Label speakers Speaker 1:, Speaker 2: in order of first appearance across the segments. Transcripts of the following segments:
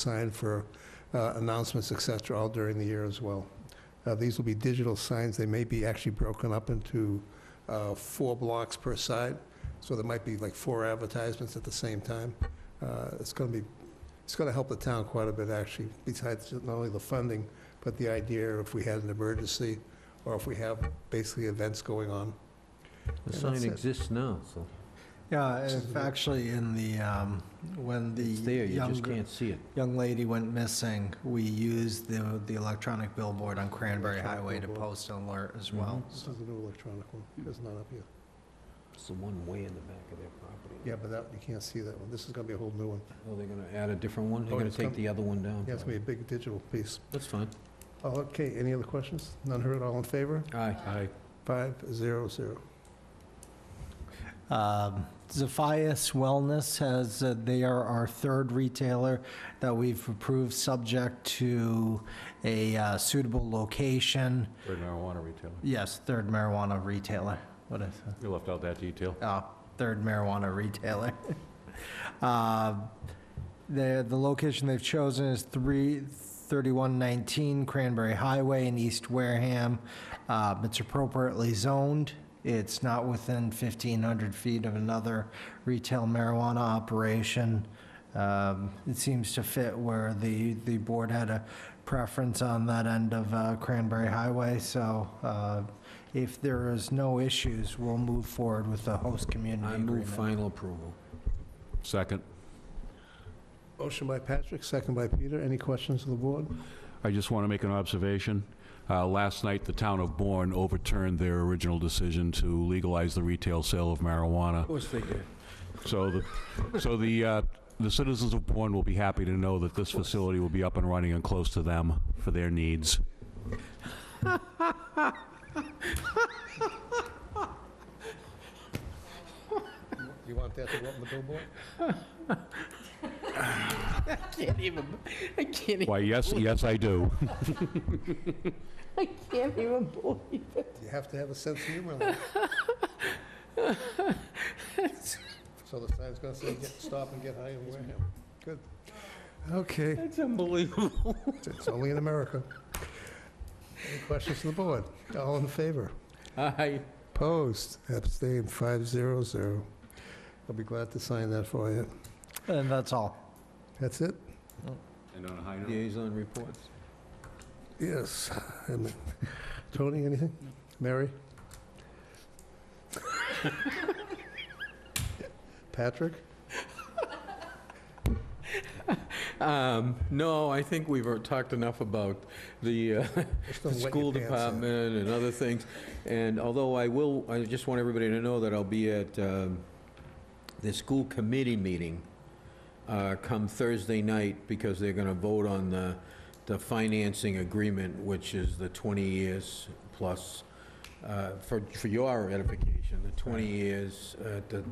Speaker 1: sign for uh, announcements, et cetera, all during the year as well. Uh, These will be digital signs. They may be actually broken up into uh, four blocks per side, so there might be like four advertisements at the same time. Uh, It's going to be, it's going to help the town quite a bit, actually, besides not only the funding, but the idea if we had an emergency or if we have basically events going on.
Speaker 2: The
Speaker 3: And that's
Speaker 2: sign
Speaker 3: it.
Speaker 2: exists now, so
Speaker 3: Yeah,
Speaker 1: So
Speaker 3: if
Speaker 1: the-
Speaker 3: actually in the, um, when the
Speaker 2: it's there, you just
Speaker 3: younger,
Speaker 2: can't see it.
Speaker 3: young lady went missing, we used the, the electronic billboard on Cranberry
Speaker 1: Electronic
Speaker 3: Highway to
Speaker 1: billboard. Mm-hmm.
Speaker 3: post an alert as well.
Speaker 1: This is the new electronic one. It's not up yet.
Speaker 2: It's the one way in the back of their property.
Speaker 1: Yeah, but that, you can't see that one. This is going to be a whole new one.
Speaker 2: Oh, they're gonna add a different one?
Speaker 1: Oh,
Speaker 2: They're gonna
Speaker 1: it's
Speaker 2: take
Speaker 1: come-
Speaker 2: the other one down?
Speaker 1: Yeah, it's going to be a big digital piece.
Speaker 2: That's fine.
Speaker 1: Oh, Okay, any other questions? None heard, all in favor?
Speaker 2: Aye. Aye.
Speaker 1: Five, zero, zero.
Speaker 3: Um, Zephyrus Wellness has, uh, they are our third retailer that we've approved subject to a uh, suitable location.
Speaker 4: Third marijuana retailer.
Speaker 3: Yes, third marijuana retailer. What is that?
Speaker 4: You left out that detail.
Speaker 3: uh, third marijuana retailer. Uh, The, the location they've chosen is 33119 Cranberry Highway in East Wareham. Uh, It's appropriately zoned. It's not within 1,500 feet of another retail marijuana operation. Um, It seems to fit where the, the board had a preference on that end of uh, Cranberry Highway, so uh, if there is no issues, we'll move forward with the host community
Speaker 2: I move
Speaker 3: agreement.
Speaker 2: final approval.
Speaker 4: Second,
Speaker 1: Motion by Patrick, second by Peter. Any questions of the board?
Speaker 4: I just want to make an observation. Uh, Last night, the town of Bourne overturned their original decision to legalize the retail sale of marijuana.
Speaker 2: course they did.
Speaker 4: So the, so the, uh, the citizens of Bourne will be happy to know that this facility will be up and running and close to them for their needs.
Speaker 1: You want that to go up on the billboard?
Speaker 5: can't even. I can't.
Speaker 4: Why, yes, yes, I do.
Speaker 5: I can't even believe it.
Speaker 1: You have to have a sense of humor. Lou. So the sign's going to say, "Get- "Stop and get high in Wareham." Good. Okay,
Speaker 5: It's unbelievable.
Speaker 1: it's only in America. Any questions of the board? All in favor?
Speaker 2: Aye.
Speaker 1: Opposed? Abstained, five, zero, zero. I'll be glad to sign that for you.
Speaker 3: And that's all.
Speaker 1: That's it?
Speaker 4: And on a high
Speaker 2: Liaison reports.
Speaker 1: Yes. And Tony, anything? Mary? Patrick?
Speaker 2: Um, no, I think we've uh, talked enough about the, uh,
Speaker 1: Just
Speaker 2: the
Speaker 1: don't wet your
Speaker 2: school
Speaker 1: pants there.
Speaker 2: department and other things. And although I will, I just want everybody to know that I'll be at um, the school committee meeting uh, come Thursday night because they're going to vote on the, the financing agreement, which is the 20 years plus, uh, for, for your edification, the 20 years at the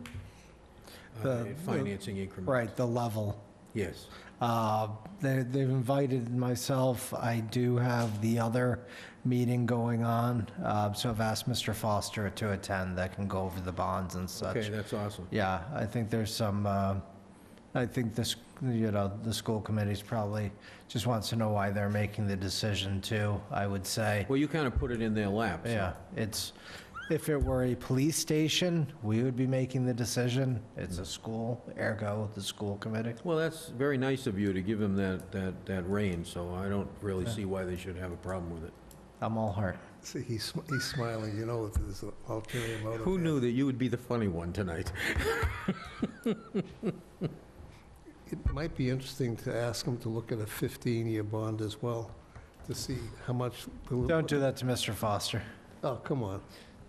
Speaker 2: uh,
Speaker 3: The-
Speaker 2: financing increment.
Speaker 3: Right, the level.
Speaker 2: Yes.
Speaker 3: Uh, they- They've invited myself. I do have the other meeting going on, uh, so I've asked Mr. Foster to attend. That can go over the bonds and
Speaker 2: Okay,
Speaker 3: such.
Speaker 2: that's awesome.
Speaker 3: Yeah, I think there's some, uh, I think this, you know, the school committee's probably just wants to know why they're making the decision too, I would say.
Speaker 2: Well, you kind of put it in their lap. so-
Speaker 3: Yeah, it's, if it were a police station, we would be making the decision.
Speaker 2: Hmm.
Speaker 3: It's a school, ergo, the school committee.
Speaker 2: Well, that's very nice of you to give them that, that, that rein, so I don't really see why they should have a problem with it.
Speaker 3: I'm all heart.
Speaker 1: See, he's sm- he's smiling, you know, that there's an ulterior motive.
Speaker 2: Who
Speaker 1: there.
Speaker 2: knew that you would be the funny one tonight?
Speaker 1: It might be interesting to ask him to look at a 15-year bond as well, to see how much...
Speaker 3: Don't do that to Mr. Foster.
Speaker 1: Oh, come on.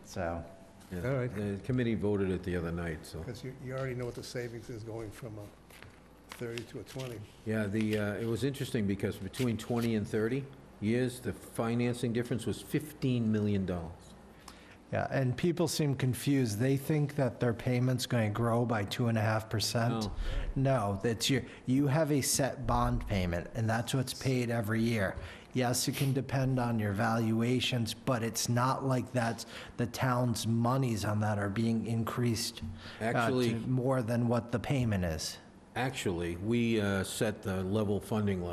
Speaker 3: So,
Speaker 2: Yeah,
Speaker 1: All right.
Speaker 2: The committee voted it the other night, so.
Speaker 1: Because you you already know what the savings is going from a 30 to a 20.
Speaker 2: Yeah, the, uh, it was interesting because between 20 and 30 years, the financing difference was $15 million.
Speaker 3: yeah, and people seem confused. They think that their payment's going to grow by two and a half percent.
Speaker 2: No.
Speaker 3: No, that's your, you have a set bond payment, and that's what's paid every year. Yes, it can depend on your valuations, but it's not like that's, the town's monies on that are being increased uh, to
Speaker 2: Actually-
Speaker 3: more than what the payment is.
Speaker 2: actually, we uh, set the level funding line